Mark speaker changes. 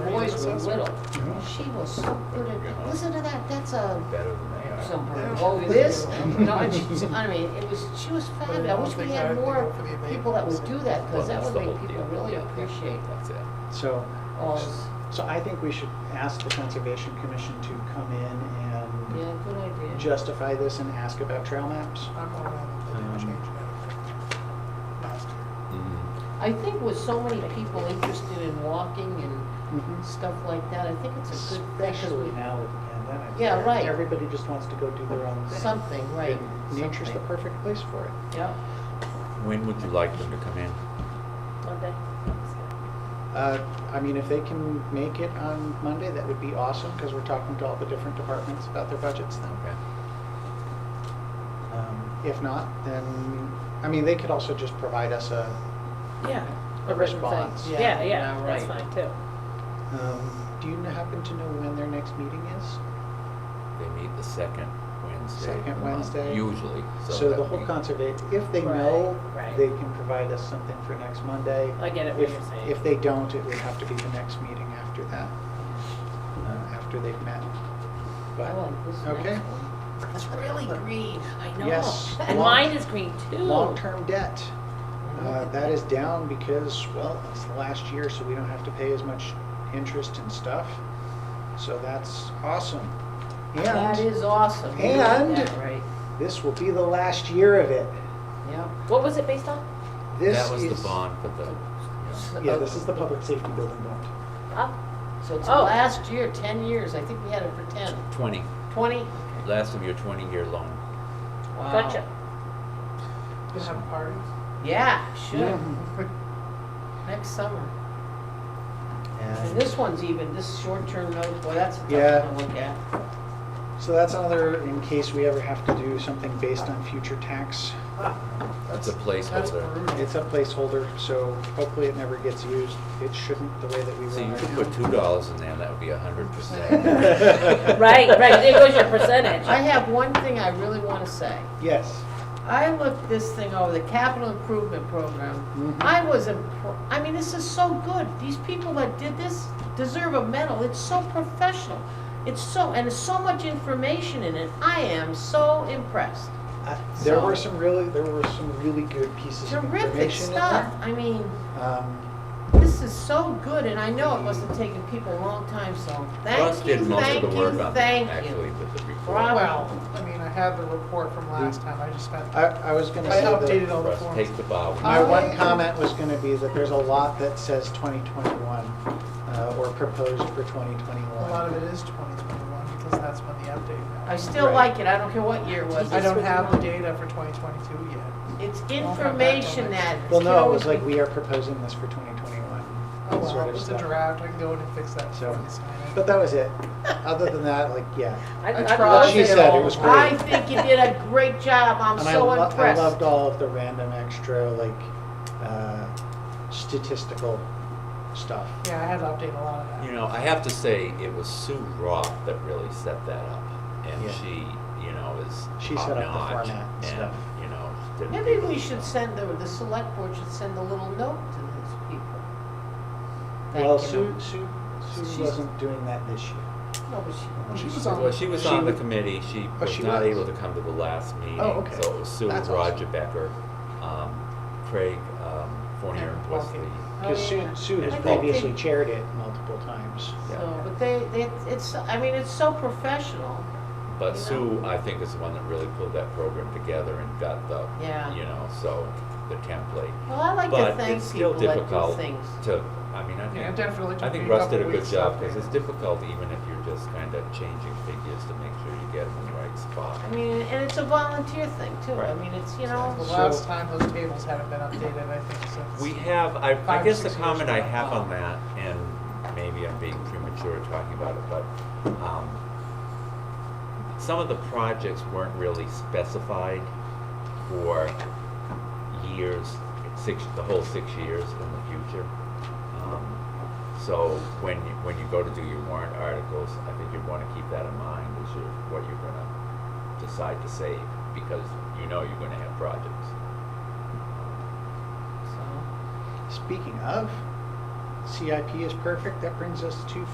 Speaker 1: Mrs. Whittle. She was so good at, listen to that, that's a,
Speaker 2: better than they are.
Speaker 1: some bird, oh, this, no, and she, I mean, it was, she was fabulous. I wish we had more people that would do that, because
Speaker 2: Well,
Speaker 1: that
Speaker 2: that's
Speaker 1: would
Speaker 2: the whole
Speaker 1: make people
Speaker 2: deal.
Speaker 1: really
Speaker 2: Yeah, yeah.
Speaker 1: appreciate
Speaker 2: That's it.
Speaker 3: So, um,
Speaker 1: all, this-
Speaker 3: so I think we should ask the Conservation Commission to come in and
Speaker 1: yeah, good idea.
Speaker 3: justify this and ask about trail maps.
Speaker 4: I'm all around it, they didn't change anything last year.
Speaker 2: Mm-hmm.
Speaker 1: I think with so many people interested in walking and
Speaker 3: Mhm.
Speaker 1: stuff like that, I think it's a good thing, 'cause
Speaker 3: Especially
Speaker 1: we,
Speaker 3: now with the pandemic.
Speaker 1: Yeah,
Speaker 3: where
Speaker 1: right.
Speaker 3: Everybody just wants to go do their own thing.
Speaker 1: something, right,
Speaker 3: And Nature's the
Speaker 1: something,
Speaker 3: perfect place for it.
Speaker 1: yeah,
Speaker 2: When would you like them to come in?
Speaker 1: Monday.
Speaker 3: Uh, I mean, if they can make it on Monday, that would be awesome, because we're talking to all the different departments about their budgets then.
Speaker 2: Okay.
Speaker 3: Um, If not, then, I mean, they could also just provide us a,
Speaker 5: Yeah.
Speaker 3: a response.
Speaker 1: Yeah,
Speaker 5: Yeah, yeah,
Speaker 1: yeah,
Speaker 5: that's
Speaker 1: right.
Speaker 5: fine too.
Speaker 3: Um, Do you happen to know when their next meeting is?
Speaker 2: They meet the second Wednesday. of
Speaker 3: Second
Speaker 2: the month,
Speaker 3: Wednesday.
Speaker 2: Usually, so.
Speaker 3: So the
Speaker 2: that
Speaker 3: whole
Speaker 2: we-
Speaker 3: conserva, if they know,
Speaker 5: Right, right.
Speaker 3: they can provide us something for next Monday.
Speaker 5: I get it what
Speaker 3: If-
Speaker 5: you're saying.
Speaker 3: If they don't, it would have to be the next meeting after that, uh, after they've met.
Speaker 1: I
Speaker 3: But
Speaker 1: like this next
Speaker 3: Okay.
Speaker 1: one. It's really green, I
Speaker 3: know. Yes.
Speaker 5: And
Speaker 3: Long-
Speaker 5: mine is green too.
Speaker 3: Long-term debt,
Speaker 1: Mm-hmm.
Speaker 3: uh, that is down because, well, it's the last year, so we don't have to pay as much interest and stuff. So that's awesome.
Speaker 1: That
Speaker 3: And
Speaker 1: is awesome. You got
Speaker 3: and-
Speaker 1: that Right,
Speaker 3: this will be the last year of it.
Speaker 1: yeah.
Speaker 5: What was it based on?
Speaker 3: This
Speaker 2: That was
Speaker 3: is-
Speaker 2: the bond for the,
Speaker 1: S-
Speaker 2: yeah.
Speaker 3: Yeah,
Speaker 1: uh,
Speaker 3: this is the public safety building bond.
Speaker 5: Up?
Speaker 1: So it's the
Speaker 5: Oh.
Speaker 1: last year, ten years, I think we had it for ten.
Speaker 2: twenty,
Speaker 1: Twenty?
Speaker 2: last of your twenty-year loan.
Speaker 1: Wow.
Speaker 5: Gotcha.
Speaker 4: They have parties.
Speaker 1: Yeah, should,
Speaker 3: Mhm.
Speaker 1: next summer. And
Speaker 3: And
Speaker 1: this one's even, this short-term note, boy, that's a
Speaker 3: Yeah.
Speaker 1: tough one to look at.
Speaker 3: so that's another, in case we ever have to do something based on future tax,
Speaker 2: It's a
Speaker 4: That's
Speaker 2: placeholder.
Speaker 4: brutal.
Speaker 3: it's a placeholder, so hopefully it never gets used. It shouldn't the way that we
Speaker 2: So
Speaker 3: run
Speaker 2: you could
Speaker 3: right
Speaker 2: put
Speaker 3: now.
Speaker 2: two dollars in there, that would be a hundred
Speaker 3: Right,
Speaker 2: percent.
Speaker 5: Right, right, there goes your percentage.
Speaker 1: I have one thing I really wanna say.
Speaker 3: Yes,
Speaker 1: I looked this thing over, the capital improvement program.
Speaker 3: Mhm.
Speaker 1: I was, impr- I mean, this is so good. These people that did this deserve a medal. It's so professional. It's so, and it's so much information in it. I am so impressed.
Speaker 3: Uh, there were
Speaker 1: So-
Speaker 3: some really, there were some really good pieces of
Speaker 1: Terrific
Speaker 3: information in
Speaker 1: stuff.
Speaker 3: there.
Speaker 1: I mean,
Speaker 3: Um,
Speaker 1: this is so good, and I know it must have taken people a long time, so
Speaker 2: Russ
Speaker 1: thank you,
Speaker 2: did most of
Speaker 1: thank
Speaker 2: the work
Speaker 1: you,
Speaker 2: on that,
Speaker 1: thank
Speaker 2: actually,
Speaker 1: you.
Speaker 2: with the report.
Speaker 1: Bravo.
Speaker 4: Well, I mean, I had the report from last time, I just spent,
Speaker 3: I, I was gonna
Speaker 4: I
Speaker 3: say
Speaker 4: updated
Speaker 3: that,
Speaker 4: all the
Speaker 2: Russ,
Speaker 4: forms.
Speaker 2: take the bow.
Speaker 3: my one
Speaker 4: I-
Speaker 3: comment was gonna be that there's a lot that says 2021, uh, or proposed for 2021.
Speaker 4: A lot of it is 2021 because that's when the update
Speaker 1: I
Speaker 4: happened.
Speaker 1: still
Speaker 3: Right.
Speaker 1: like it. I don't care what year it was.
Speaker 4: I don't have the data for 2022 yet.
Speaker 1: It's
Speaker 4: I'll have that till
Speaker 1: information
Speaker 4: next
Speaker 1: that.
Speaker 4: year.
Speaker 3: Well,
Speaker 1: can
Speaker 3: no, it
Speaker 1: always
Speaker 3: was like,
Speaker 1: be-
Speaker 3: we are proposing this for 2021.
Speaker 4: Oh,
Speaker 3: sort
Speaker 4: well,
Speaker 3: of
Speaker 4: it's a
Speaker 3: stuff.
Speaker 4: draft, I can go in and fix that.
Speaker 3: So-
Speaker 4: before we sign it.
Speaker 3: But that was it. Other than that, like, yeah.
Speaker 5: I-
Speaker 4: I
Speaker 5: I
Speaker 4: tried.
Speaker 5: love
Speaker 3: She
Speaker 5: it
Speaker 3: said it
Speaker 5: all.
Speaker 3: was great.
Speaker 1: I think you did a great job. I'm
Speaker 3: and
Speaker 1: so
Speaker 3: I, lo- I
Speaker 1: impressed.
Speaker 3: loved all of the random extra, like, uh, statistical stuff.
Speaker 4: Yeah, I had to update a lot of that.
Speaker 2: You know, I have to say, it was Sue Roth that really set that up, and
Speaker 3: Yeah.
Speaker 2: she, you know, is
Speaker 3: She set up the
Speaker 2: top-notch,
Speaker 3: format and stuff.
Speaker 2: you know, did-
Speaker 1: Maybe we should send, the, the select board should send a little note to those people. Thank
Speaker 3: Well,
Speaker 1: you.
Speaker 3: Sue, Sue, Sue
Speaker 1: She's- Oh,
Speaker 3: wasn't doing that this year.
Speaker 1: No, but she-
Speaker 4: She was
Speaker 2: Well,
Speaker 4: on,
Speaker 2: she was
Speaker 3: She
Speaker 2: on the
Speaker 3: was-
Speaker 2: committee, she
Speaker 3: Oh,
Speaker 2: was
Speaker 3: she
Speaker 2: not
Speaker 3: was.
Speaker 2: able to come to the last meeting,
Speaker 3: Oh, okay.
Speaker 2: so it was Sue,
Speaker 3: That's
Speaker 2: Roger
Speaker 3: awesome.
Speaker 2: Becker, um, Craig, um, Fournier
Speaker 4: And
Speaker 2: and Wesley.
Speaker 4: Wilkie.
Speaker 3: Because
Speaker 1: Oh,
Speaker 3: Sue,
Speaker 1: yeah.
Speaker 3: Sue
Speaker 2: I
Speaker 3: has
Speaker 2: think
Speaker 3: previously
Speaker 1: they-
Speaker 3: chaired it multiple times.
Speaker 1: So, but they, they, it's, I mean, it's so professional.
Speaker 2: But
Speaker 1: You
Speaker 2: Sue, I think, is the one that really pulled that program together and got the,
Speaker 1: Yeah.
Speaker 2: you know, so, the template.
Speaker 1: Well, I like to
Speaker 2: But it's
Speaker 1: thank
Speaker 2: still
Speaker 1: people that do
Speaker 2: difficult
Speaker 1: things.
Speaker 2: to, I mean, I
Speaker 4: Yeah, it
Speaker 2: think,
Speaker 4: definitely
Speaker 2: I
Speaker 4: took
Speaker 2: think
Speaker 4: me a
Speaker 2: Russ
Speaker 4: couple
Speaker 2: did a good
Speaker 4: weeks to
Speaker 2: job,
Speaker 4: update
Speaker 2: because it's
Speaker 4: it.
Speaker 2: difficult even if you're just kind of changing figures to make sure you get them in the right spot.
Speaker 1: I mean, and it's a volunteer thing too. I
Speaker 2: Right.
Speaker 1: mean, it's, you
Speaker 4: the
Speaker 1: know,
Speaker 4: last time those tables haven't been updated, I think, since.
Speaker 2: We have, I, I
Speaker 4: Five,
Speaker 2: guess the
Speaker 4: six years
Speaker 2: comment I
Speaker 4: ago.
Speaker 2: have on that, and maybe I'm being premature talking about it, but, um, some of the projects weren't really specified for years, six, the whole six years in the future. Um, So when, you- when you go to do your warrant articles, I think you'd wanna keep that in mind, is your, what you're gonna decide to save, because you know you're gonna have projects.
Speaker 1: so.
Speaker 3: Speaking of, CIP is perfect. That brings us to